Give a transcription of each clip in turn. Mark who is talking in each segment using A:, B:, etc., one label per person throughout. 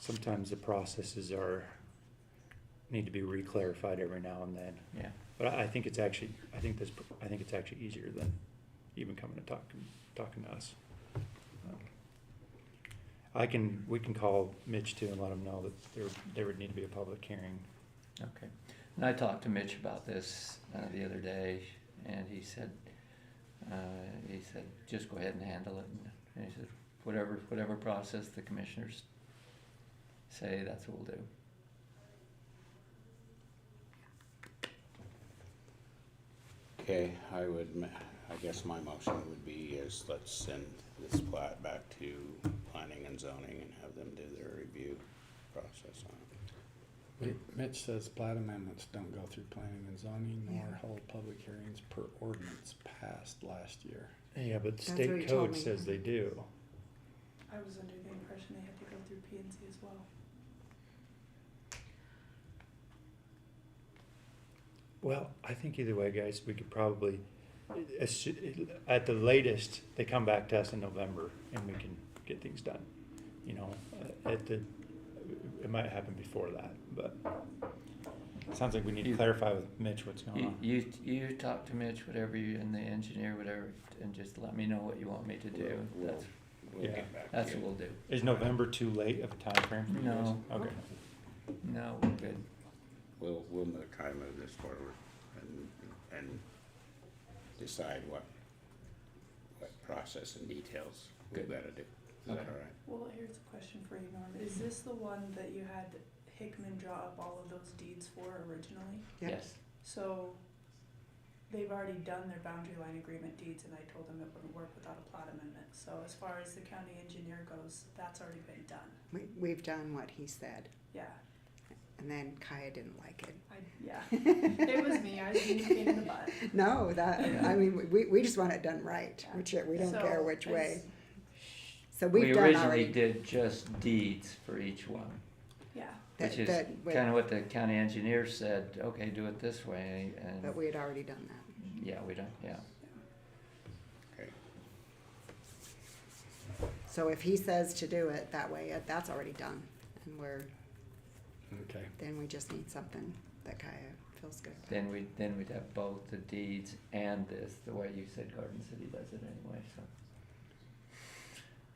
A: sometimes the processes are, need to be reclarified every now and then.
B: Yeah.
A: But I I think it's actually, I think this, I think it's actually easier than even coming and talking, talking to us. Um, I can, we can call Mitch too and let him know that there, there would need to be a public hearing.
B: Okay. And I talked to Mitch about this uh, the other day, and he said, uh, he said, just go ahead and handle it. And he said, whatever, whatever process the commissioners say, that's what we'll do.
C: Okay, I would, ma- I guess my motion would be is let's send this plat back to planning and zoning and have them do their review process on it.
D: Wait, Mitch says plat amendments don't go through planning and zoning nor hold public hearings per ordinance passed last year.
A: Yeah, but
E: That's state what
A: state
E: he told
A: code
E: code me.
A: says
E: says
A: they
E: they
A: do.
F: I was under the impression they had to go through P and Z as well.
A: Well, I think either way, guys, we could probably, as- at the latest, they come back to us in November and we can get things done. You know, uh, at the, it might happen before that, but it sounds like we need to
B: You-
A: clarify with Mitch what's going
C: Uh-huh.
B: You,
A: on.
B: you, you talk to Mitch, whatever you, and the engineer, whatever, and just let me know what you want me to do.
C: We'll-
B: That's,
C: We'll
A: Yeah.
C: get back to
B: that's what
C: you.
B: we'll do.
A: Is November too late of a timeframe for you guys?
B: No.
A: Okay.
B: No, we're good.
C: We'll, we'll move, try to move this forward and, and decide what, what process and details we
B: Good.
C: gotta do. Is that all
B: Okay.
C: right?
F: Well, here's a question for you, Norm. Is this the one that you had Hickman draw up all of those deeds for originally?
E: Yep.
B: Yes.
F: So they've already done their boundary line agreement deeds and I told them it wouldn't work without a plat amendment. So as far as the county engineer goes, that's already been done.
E: We, we've done what he said,
F: Yeah,
E: and then Kaya didn't like it.
F: I, yeah. It was me. I was being a pain in the butt.
E: No, that, Uh, I mean, we, we just want it done right,
F: Yeah.
E: which, we don't
F: So
E: care which
F: I
E: way.
F: s-
E: So
B: We
E: we've done
B: originally
E: already,
B: did just deeds for each one.
F: Yeah,
B: Which
E: that,
B: is
E: that, we-
B: kind of what the county engineer said, okay, do it this way, and,
E: but we had already done that.
B: yeah, we don't, yeah.
C: Okay,
E: So if he says to do it that way, uh, that's already done, and we're,
D: Okay,
E: then we just need something that Kaya feels good about.
B: Then we, then we'd have both the deeds and this, the way you said Garden City does it anyway, so.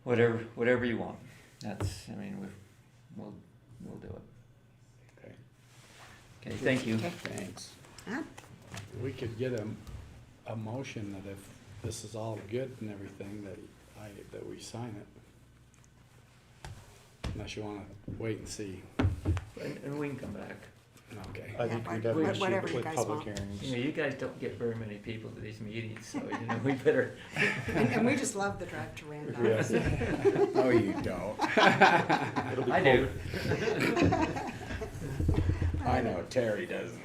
B: Whatever, whatever you want, that's, I mean, we, we'll, we'll do it.
C: okay,
B: Okay, thank you.
E: Okay.
C: thanks.
E: Huh?
D: we could get a, a motion that if this is all good and everything, that I, that we sign it. Unless you wanna wait and see.
B: And, and we can come back.
D: Okay.
A: I
E: Yeah,
A: think we
E: what-
A: definitely
E: whatever
A: should
E: you
A: with
E: guys
A: public
E: want.
B: You know,
A: hearings.
B: you guys don't get very many people to these meetings, so, you know, we better,
E: And, and we just love the drive to Randolph.
A: Yes.
C: No, you don't.
A: It'll be
B: I
A: cold.
B: do.
C: I know Terry doesn't.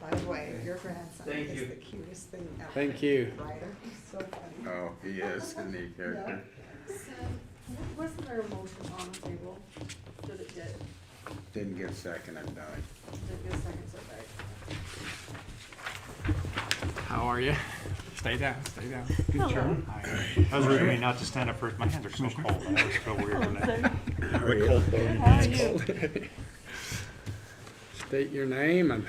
E: By the way, your grandson
B: Thank you.
E: is the cutest thing ever.
D: Thank you.
E: Right? He's so funny.
C: Oh, he is, isn't he, character?
G: Wasn't there a motion on the table? Did it get,
C: Didn't get second, I'm dying.
G: did it get seconds or right?
D: How are you? Stay down, stay down. Good job.
A: I was ready not to stand up first. My hands are so cold. I always feel weird when I. The cold bone.
D: State your name and.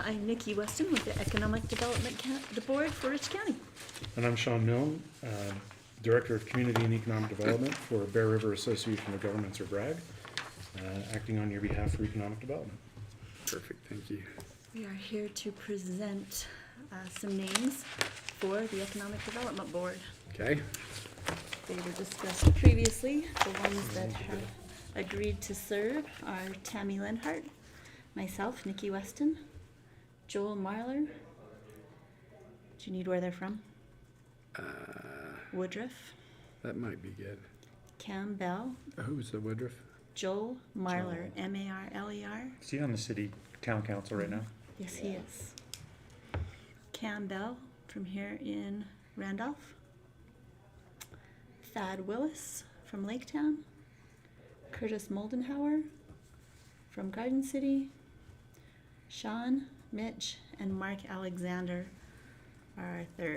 H: I'm Nikki Weston with the Economic Development Ca- the Board for Rich County.
I: And I'm Sean Milne, uh, Director of Community and Economic Development for Bear River Association of Governments or BRAG, uh, acting on your behalf for economic development.
D: Perfect, thank you.
H: We are here to present uh, some names for the Economic Development Board.
D: Okay,
H: They were discussed previously. The ones that have agreed to serve are Tammy Lenhart, myself, Nikki Weston, Joel Marler. Do you need where they're from?
D: uh,
H: Woodruff,
D: that might be good.
H: Cam Bell,
D: Who's the Woodruff?
H: Joel Marler, M-A-R-L-E-R.
A: Is he on the city town council right now?
H: Yes, he is. Cam Bell from here in Randolph. Thad Willis from Laketown. Curtis Moldenhauer from Garden City. Sean, Mitch, and Mark Alexander are our third.